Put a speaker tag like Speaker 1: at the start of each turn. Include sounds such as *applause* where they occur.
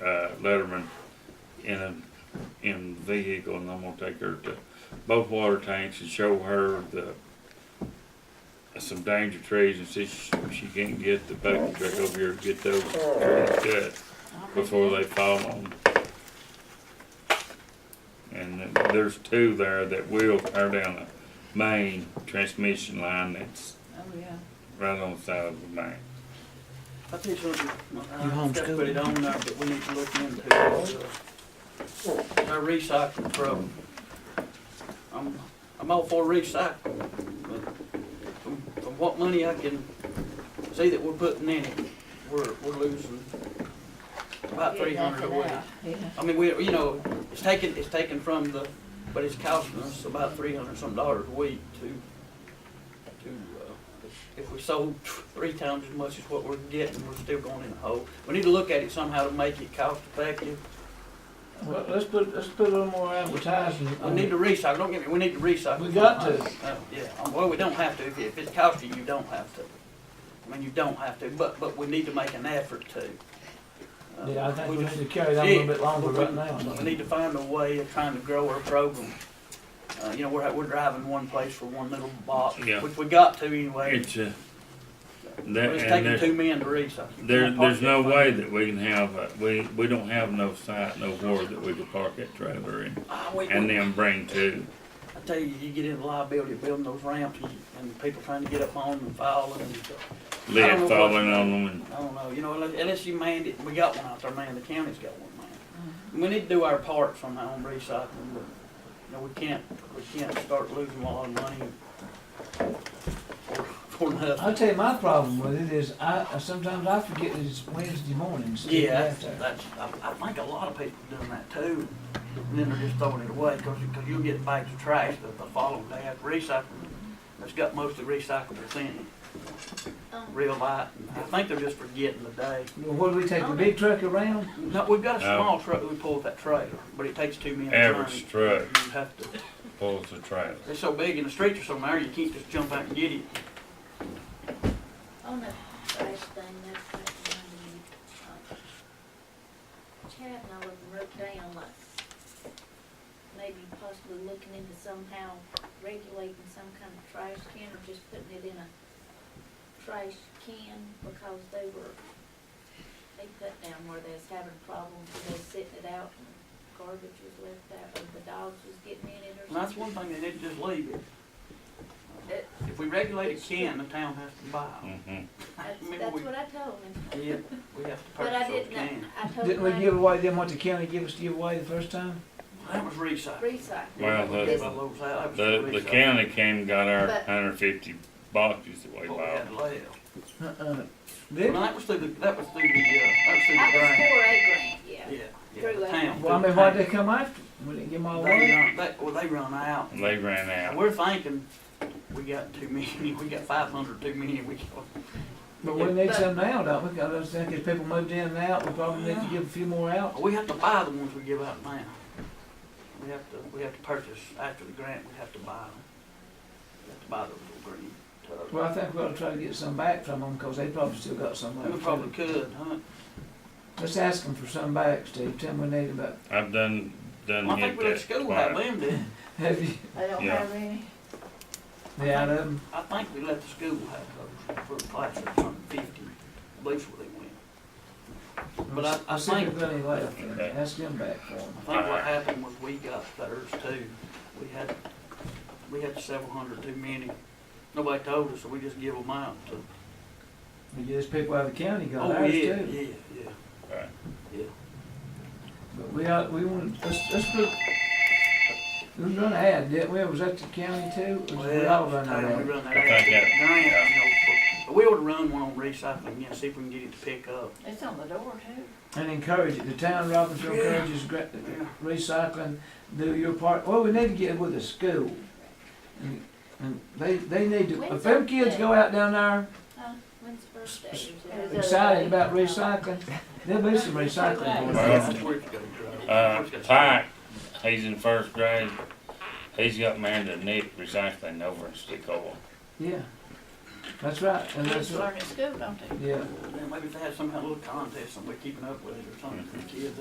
Speaker 1: uh, Letterman in a, in the vehicle and I'm gonna take her to both water tanks and show her the, some danger trees and see if she can't get the bucket truck over here, to get those trees cut before they fall on. And then there's two there that will tear down a main transmission line that's
Speaker 2: Oh, yeah.
Speaker 1: right on the side of the main.
Speaker 3: I think you'll do,
Speaker 4: You
Speaker 3: I just uh, put it on there, but we need to look into it. uh, Our recycling problem. I'm, I'm all for recycling, but from, from what money I can see that we're putting in it, we're, we're losing about three hundred a week.
Speaker 2: Yeah.
Speaker 3: I mean, we, you know, it's taken, it's taken from the, but it's costing us about three hundred some dollars a week to, to, uh, if we sold *laughs* three times as much as what we're getting, we're still going in the hole. We need to look at it somehow to make it cost effective.
Speaker 5: Well, let's put, let's put a little more advertising.
Speaker 3: We need to recycle, don't get me, we need to recycle.
Speaker 5: We got to.
Speaker 3: Uh, Yeah, um, well, we don't have to, if, if it's costing you, you don't have to. I mean, you don't have to, but, but we need to make an effort to. Uh,
Speaker 5: Yeah, I think
Speaker 3: we
Speaker 5: we
Speaker 3: just-
Speaker 5: need to carry that a little bit longer
Speaker 3: Yeah,
Speaker 5: right now.
Speaker 3: We need to find a way of trying to grow our program. Uh, you know, we're, we're driving one place for one little box,
Speaker 1: Yeah.
Speaker 3: which we got to anyway.
Speaker 1: It's a, that, and
Speaker 3: But It's taking
Speaker 1: there's-
Speaker 3: two men to recycle. You
Speaker 1: There,
Speaker 3: can't park
Speaker 1: there's no
Speaker 3: that
Speaker 1: way
Speaker 3: thing.
Speaker 1: that we can have, a- we, we don't have no site, no board that we could park that trailer in
Speaker 3: Ah, we-
Speaker 1: and then bring to.
Speaker 3: I tell you, you get into liability of building those ramps and, and people trying to get up on them and falling and,
Speaker 1: Lead falling on them and,
Speaker 3: I don't know, you know, unless, unless you manned it, we got one out there, man, the county's got one, man. We need to do our part somehow on recycling, but, you know, we can't, we can't start losing a lot of money for, for nothing.
Speaker 5: I'll tell you, my problem with it is I, sometimes I forget that it's Wednesday mornings.
Speaker 3: Yeah, that's, that's, I, I think a lot of people doing that too, and then they're just throwing it away, cause, cause you'll get bags of trash that the following day after recycling, that's got mostly recyclable in it.
Speaker 6: Um,
Speaker 3: Real light, I think they're just forgetting the day.
Speaker 5: Well, What, do we take the big truck around?
Speaker 3: No, we've got a
Speaker 1: No.
Speaker 3: small truck that we pull with that trailer, but it takes two men to turn it.
Speaker 1: average truck
Speaker 3: You have to,
Speaker 1: pulls the trailer.
Speaker 3: it's so big in the streets or somewhere, you can't just jump out and get it.
Speaker 6: On that trash thing, that's what reminded me. uh, Chad and I was wrote down like, maybe possibly looking into somehow regulating some kind of trash can or just putting it in a trash can because they were, they put down where they was having problems, they was sitting it out and garbage was left out or the dogs was getting in it or
Speaker 3: And that's
Speaker 6: something.
Speaker 3: one thing, they need to just leave it. If we regulate a can, the town has to buy them.
Speaker 1: Mhm.
Speaker 6: That's,
Speaker 3: Maybe
Speaker 6: that's
Speaker 3: we-
Speaker 6: what I told him,
Speaker 3: Yeah, we have to
Speaker 6: but I
Speaker 3: purchase those
Speaker 6: didn't,
Speaker 3: cans.
Speaker 6: I told him.
Speaker 5: Didn't we
Speaker 6: I-
Speaker 5: give away them what the county gave us to give away the first time?
Speaker 3: That was recycled.
Speaker 6: recycle.
Speaker 1: Well,
Speaker 3: Yeah,
Speaker 1: the-
Speaker 3: that was- that was
Speaker 1: The, the
Speaker 3: recycled.
Speaker 1: county came, and got our
Speaker 6: But-
Speaker 1: hundred fifty boxes that we
Speaker 3: What Oh, we
Speaker 1: bought.
Speaker 3: had left.
Speaker 5: Uh-uh.
Speaker 3: And
Speaker 5: Did?
Speaker 3: that was through the, that was through the, uh, that was through
Speaker 6: I
Speaker 3: the
Speaker 6: was
Speaker 3: grant.
Speaker 6: four eight grand, yeah.
Speaker 3: Yeah, yeah,
Speaker 6: Through
Speaker 3: the
Speaker 6: that.
Speaker 3: town.
Speaker 5: Well, I
Speaker 3: through
Speaker 5: mean,
Speaker 3: the
Speaker 5: why'd
Speaker 3: town.
Speaker 5: they come after? We didn't give them all
Speaker 3: They
Speaker 5: away?
Speaker 3: run, they, well, they run out.
Speaker 1: And they ran
Speaker 3: And
Speaker 1: out.
Speaker 3: we're thinking, we got too many, we got five hundred too many, we got
Speaker 5: But we need some now, don't we? 'Cause I was thinking people moved in and out, we probably need to give a few more out.
Speaker 3: We have to buy the ones we give out now. We have to, we have to purchase after the grant, we have to buy them. We have to buy those little green tubs.
Speaker 5: Well, I think we ought to try to get some back from them, 'cause they probably still got some
Speaker 3: We
Speaker 5: left.
Speaker 3: probably could, huh?
Speaker 5: Let's ask them for some back, Steve. Tell them we need about,
Speaker 1: I've done,
Speaker 3: Well,
Speaker 1: done
Speaker 3: I think
Speaker 1: hit
Speaker 3: we let
Speaker 1: that
Speaker 3: school have
Speaker 1: twice.
Speaker 3: them, did.
Speaker 5: have
Speaker 3: *laughs*
Speaker 5: you,
Speaker 2: I don't
Speaker 1: Yeah.
Speaker 2: have any.
Speaker 5: the out of them?
Speaker 3: I think we let the school have those for a class of hundred fifty, I believe that's where they went. But I- I
Speaker 5: See if
Speaker 3: think-
Speaker 5: there's any left, and
Speaker 1: Okay.
Speaker 5: ask them back for them.
Speaker 3: I think what happened was we got theirs too. We had, we had several hundred too many. Nobody told us, so we just give them out to.
Speaker 5: We just people out of the county got
Speaker 3: Oh,
Speaker 5: ours
Speaker 3: yeah,
Speaker 5: too.
Speaker 3: yeah, yeah.
Speaker 1: Right.
Speaker 5: But we ought, we want, let's, let's put, we was running an ad, didn't we? Was that the county too? Or
Speaker 3: Well,
Speaker 5: did we all run
Speaker 3: I
Speaker 5: that
Speaker 3: think we
Speaker 5: ad?
Speaker 3: run that
Speaker 1: I
Speaker 3: out.
Speaker 1: think that-
Speaker 3: Grant, you
Speaker 1: yeah.
Speaker 3: know, for- We ought to run one on recycling, yeah, see if we can get it to pick up.
Speaker 2: It's on the door too.
Speaker 5: And encourage it. The town Robinson
Speaker 3: Yeah.
Speaker 5: encourages gra- recycling, do your part. Well, we need to get with the school. And- And they, they need to, if them kids go out down there
Speaker 6: When's the first day?
Speaker 5: S-
Speaker 6: Is it-
Speaker 5: excited about recycling, there'll be some recycling. going
Speaker 1: Well,
Speaker 5: on.
Speaker 3: That's where it's gotta go.
Speaker 1: Uh,
Speaker 3: Where's it gotta
Speaker 1: Pike, he's in first grade. He's got married to Nick recycling over in Stickola.
Speaker 5: Yeah, that's right, and that's
Speaker 2: Kids
Speaker 5: right,
Speaker 2: learn at school, don't they?
Speaker 5: yeah.
Speaker 3: go? Maybe if they had some kind of little contest, somebody keeping up with it or something for the kids.